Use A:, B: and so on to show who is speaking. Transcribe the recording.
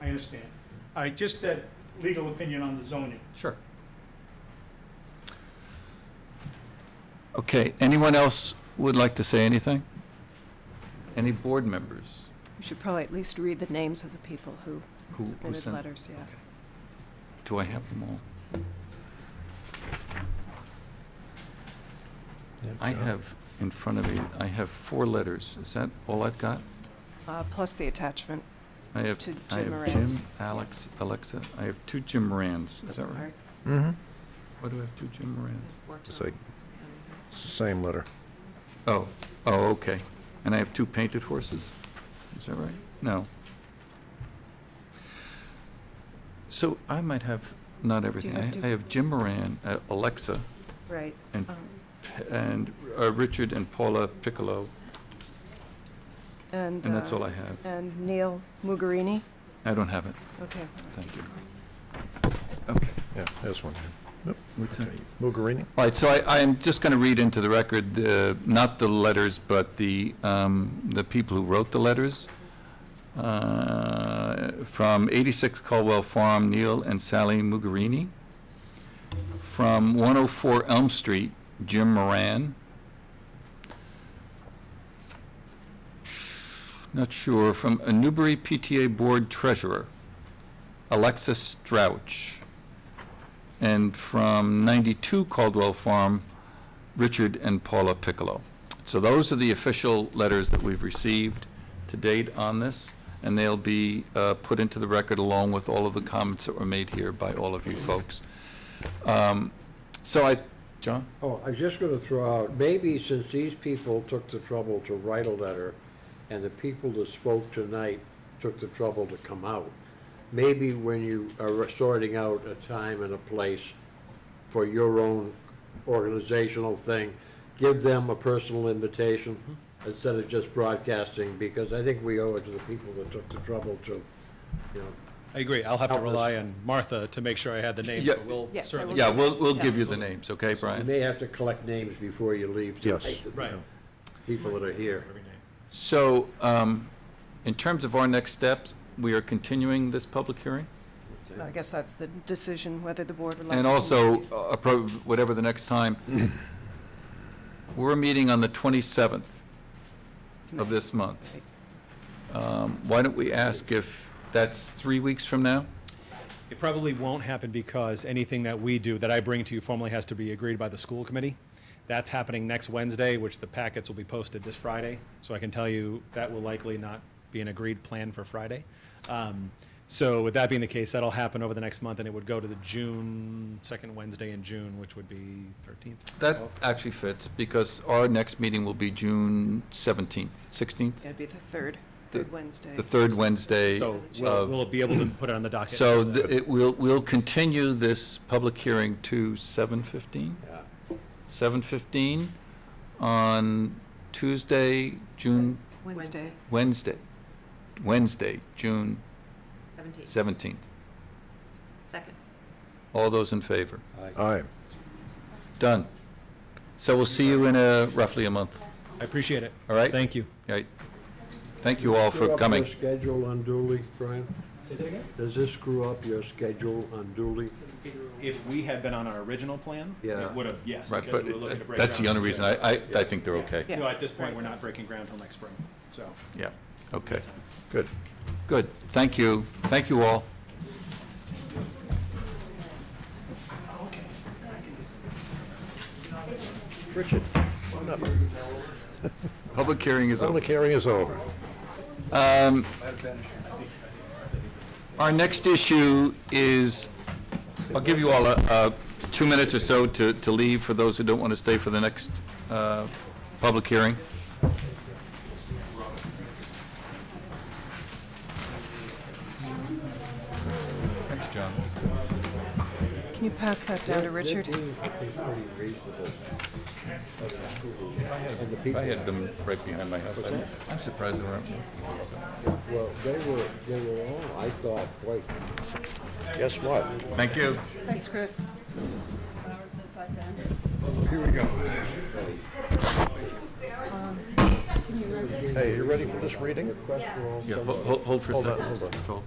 A: I understand. I, just that legal opinion on the zoning.
B: Sure.
C: Okay, anyone else would like to say anything? Any board members?
D: We should probably at least read the names of the people who
C: who- who
D: submitted
C: sent-
D: letters, yeah.
C: Do I have them all? I have in front of me, I have four letters. Is that all I've got?
D: Uh, Plus the attachment.
C: I have,
D: To
C: I
D: Jim
C: have
D: Moran's.
C: Jim, Alex, Alexa. I have two Jim Morans. Is that right?
E: Mm-hmm.
C: Why do I have two Jim Morans?
E: So it's the same letter.
C: Oh, oh, okay. And I have two painted horses? Is that right? No. So I might have, not everything.
D: have
C: I
D: two-
C: I have Jim Moran, uh, Alexa,
D: Right.
C: and,
D: Um,
C: and uh, Richard and Paula Piccolo,
D: And.
C: and that's
D: uh,
C: all I have.
D: And Neil Mugarini,
C: I don't have it,
D: okay.
C: thank you.
E: Yeah, there's one.
C: What's that?
E: Mugarini?
C: All right, so I, I'm just going to read into the record, uh, not the letters, but the, um, the people who wrote the letters. Uh, From 86 Caldwell Farm, Neil and Sally Mugarini. From 104 Elm Street, Jim Moran. Not sure, from a Newbury PTA Board Treasurer, Alexis Strouch. And from 92 Caldwell Farm, Richard and Paula Piccolo. So those are the official letters that we've received to date on this, and they'll be uh, put into the record along with all of the comments that were made here by all of you folks. Um, So I, John?
F: Oh, I was just gonna throw out, maybe since these people took the trouble to write a letter, and the people that spoke tonight took the trouble to come out, maybe when you are sorting out a time and a place for your own organizational thing, give them a personal invitation instead of just broadcasting, because I think we owe it to the people that took the trouble to, you know,
B: I agree. I'll have to
F: Help us.
B: rely on Martha to make sure I had the names,
C: Yeah.
B: but we'll
D: Yes, I
B: certainly.
D: will.
C: Oh, Yeah, we'll, we'll give you the
D: Absolutely.
C: names, okay,
F: you
C: Brian?
F: may have to collect names before you leave
E: Yes.
F: tonight.
B: Right.
F: People that are here.
C: So, um, in terms of our next steps, we are continuing this public hearing?
F: okay?
D: I guess that's the decision, whether the board would like.
C: And
D: to
C: also,
D: continue.
C: uh, approve whatever the next time. We're meeting on the 27th of this month. Um, Why don't we ask if that's three weeks from now?
B: It probably won't happen because anything that we do, that I bring to you formally has to be agreed by the school committee. That's happening next Wednesday, which the packets will be posted this Friday. So I can tell you that will likely not be an agreed plan for Friday. Um, So with that being the case, that'll happen over the next month and it would go to the June, second Wednesday in June, which would be 13th.
C: That
B: 12th.
C: actually fits, because our next meeting will be June 17th, 16th,
D: It'd be the third,
C: The-
D: third Wednesday.
C: the third Wednesday.
B: So we'll,
C: of-
B: we'll be able to put it on the docket.
C: So th- it will, we'll continue this public hearing to 7:15?
F: Yeah.
C: 7:15 on Tuesday, June
D: Wednesday.
C: Wednesday, Wednesday, June
G: Seventeenth.
C: 17th.
G: Second.
C: All those in favor?
E: All right.
C: Done. So we'll see you in uh, roughly a month,
B: I appreciate it.
C: all right?
B: Thank you.
C: All right. Thank you all
F: Screw
C: for
F: up
C: coming.
F: your schedule unduly, Brian? Does this screw up your schedule unduly?
B: If we had been on our original plan,
F: Yeah.
B: it would have, yes.
C: Right,
B: because
C: but
B: we were looking to break
C: that's the
B: ground
C: only
B: in
C: reason
B: June.
C: I, I, I think they're okay.
D: Yeah.
B: No, at this point, we're not breaking ground till next spring, so.
C: Yeah, okay.
E: Good.
C: Good, thank you, thank you all.
E: Richard,
C: Public hearing is over.
E: public hearing is over.
C: Our next issue is, I'll give you all, uh, two minutes or so to, to leave for those who don't want to stay for the next, uh, public hearing. Thanks, John.
D: Can you pass that down to Richard?
F: They're being pretty reasonable. And the
C: I
F: people,
C: had them right behind my house. I'm- I'm surprised they weren't.
F: well, they were, they were all, I thought, quite
E: Guess what?
C: Thank you.
D: Thanks, Chris.
E: Hey, you ready for this reading?
C: Yeah, ho- ho- hold for a
E: Hold
C: second.
E: on, hold on.
C: Just hold.